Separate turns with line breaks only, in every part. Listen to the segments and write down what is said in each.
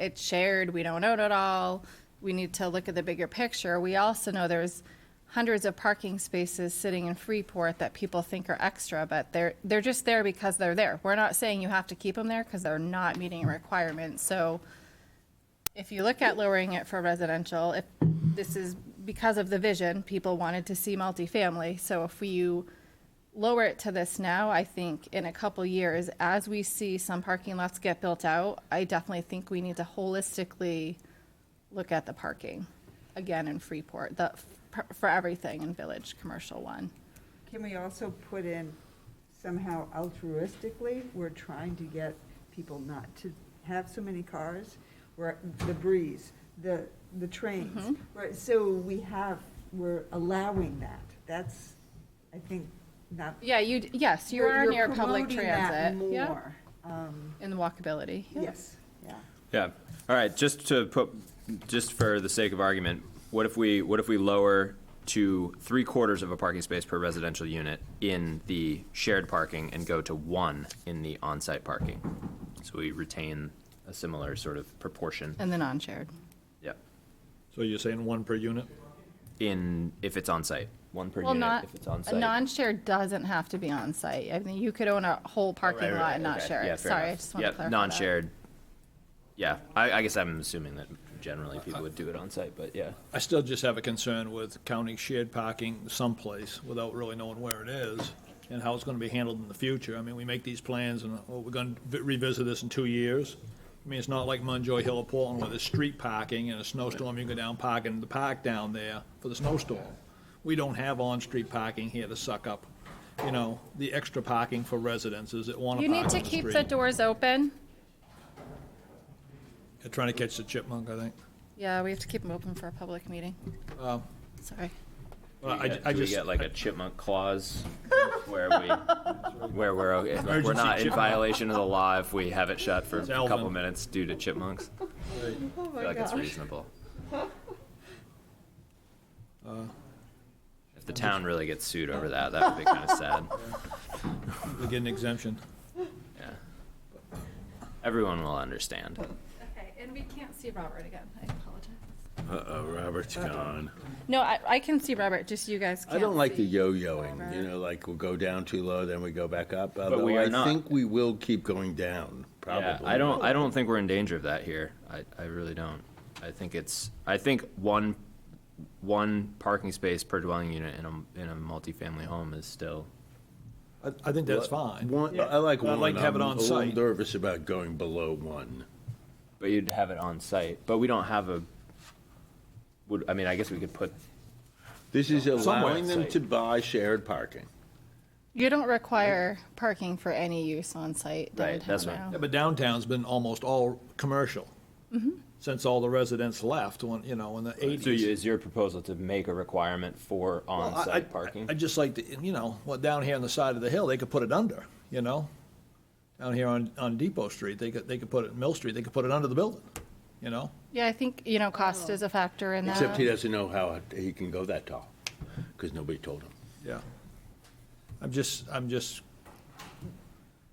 it's shared, we don't own it all, we need to look at the bigger picture. We also know there's hundreds of parking spaces sitting in Freeport that people think are extra, but they're, they're just there because they're there. We're not saying you have to keep them there because they're not meeting a requirement, so if you look at lowering it for residential, if this is because of the vision, people wanted to see multifamily, so if you lower it to this now, I think in a couple years, as we see some parking lots get built out, I definitely think we need to holistically look at the parking again in Freeport, the, for everything in Village Commercial One.
Can we also put in somehow altruistically, we're trying to get people not to have so many cars, where the breeze, the, the trains,
Mm-hmm.
right, so we have, we're allowing that, that's, I think, not.
Yeah, you, yes, you
You're-
are
you're
near public
promoting that
transit. yeah,
More, um,
And walkability. yeah.
yes, yeah.
Yeah, all right, just to put, just for the sake of argument, what if we, what if we lower to three quarters of a parking space per residential unit in the shared parking and go to one in the on-site parking? So we retain a similar sort of proportion,
And the non-shared.
yeah,
So you're saying one per unit?
in, if it's on-site, one per
Well,
unit
not,
if it's
a
on-site.
non-shared doesn't have to be on-site. I mean, you could own a whole parking
Oh, Right, right,
lot and not
okay.
share
Yeah,
it.
fair
Sorry, I
enough.
just want to
Yep,
clarify that.
Non-shared, yeah, I, I guess I'm assuming that generally people would do it on-site, but yeah.
I still just have a concern with counting shared parking someplace without really knowing where it is and how it's gonna be handled in the future. I mean, we make these plans and, oh, we're gonna vi- revisit this in two years. I mean, it's not like Munjoy Hill or Portland where there's street parking and a snowstorm, you go down parking in the park down there for the snowstorm. We don't have on-street parking here to suck up, you know, the extra parking for residences that wanna
You
park on
need
the
to
street.
keep the doors open.
They're Trying to catch the chipmunk, I think.
Yeah, we have to keep them open for a public meeting. Sorry.
Well,
Do we
I-
get-
I
do we
just-
get like a chipmunk clause where we, where we're, okay- like, we're
Emergency
not in
chipmunk.
violation of the law if we have it shut for a
It's
couple
Alvin.
minutes due to chipmunks? I
Oh,
feel like it's reasonable.
Uh,
If the town really gets sued over that, that would be kind of sad.
We get an exemption.
Yeah. Everyone will understand.
Okay, and we can't see Robert again. I apologize.
Uh-oh, Robert's gone.
No, I, I can see Robert, just you guys can't
I don't like the
see.
yo-yoing, you
Robert.
know, like we'll go down too low, then we go back up.
But we
Although
are
I
not.
think we will keep going down,
Yeah,
probably.
I don't, I don't think we're in danger of that here. I, I really don't. I think it's, I think one, one parking space per dwelling unit in a, in a multifamily home is still
I, I think that's fine.
One, I like one.
I'd like to have it
I'm
on
A
site.
little nervous about going below one.
But you'd have it on site, but we don't have a, would, I mean, I guess we could put,
This is allowing them
site.
to buy shared parking.
You don't require parking for any use on site
Right,
downtown
that's right.
now.
Yeah, but downtown's been almost all commercial since all the residents left, when, you know, in the
so
eighties.
is your proposal to make a requirement for on-site parking?
I'd just like to, you know, well, down here on the side of the hill, they could put it under, you know? Down here on, on Depot Street, they could, they could put it, Mill Street, they could put it under the building, you know?
Yeah, I think, you know, cost is a factor in
Except he
that.
doesn't know how he can go that tall, because nobody told him.
Yeah. I'm just, I'm just,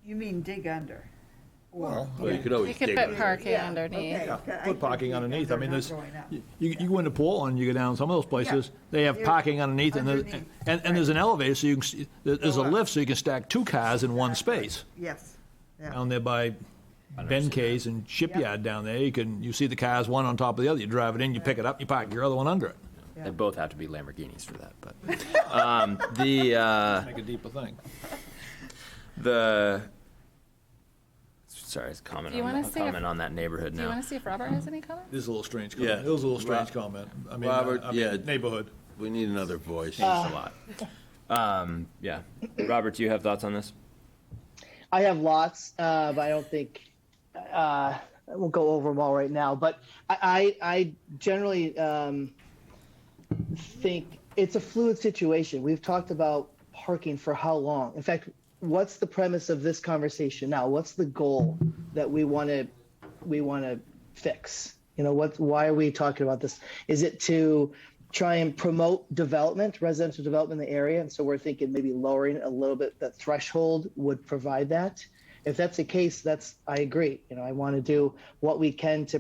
You mean dig under? or-
well,
Well, you could always
You could
dig
put
under.
parking
Yeah,
underneath.
okay.
yeah,
I
put
think
parking
dig
underneath. I
under,
mean,
not
there's,
going up.
you, you go into Portland, you go down some of those places, they have
They're
parking underneath and there,
underneath,
and, and there's an elevator, so you can, see- there- there's a
Go up.
lift, so you can stack two cars in one space.
Yes, yeah,
down there by Ben K's and Shipyard down there, you can, you see the cars, one on top of the other, you drive it in, you pick it up, you park your other one under it.
They both have to be Lamborghinis for that, but, um, the, uh,
Make a deeper thing.
the, sorry, it's comment
Do you
on,
wanna
that-
say if-
comment on that neighborhood
Do you
now.
want to see if Robert has any comment?
This is a little strange
Yeah.
comment, it was a little strange
Ro-
comment, I mean,
Robert,
I mean,
yeah.
neighborhood.
We need another voice.
Uh,
It's a lot. Um, yeah. Robert, do you have thoughts on this?
I have lots, uh, but I don't think uh, I won't go over them all right now. But I, I, I generally um, think it's a fluid situation. We've talked about parking for how long? In fact, what's the premise of this conversation now? What's the goal that we want to we want to fix? You know, what? Why are we talking about this? Is it to try and promote development, residential development in the area? And so we're thinking maybe lowering a little bit the threshold would provide that. If that's the case, that's I agree. You know, I want to do what we can to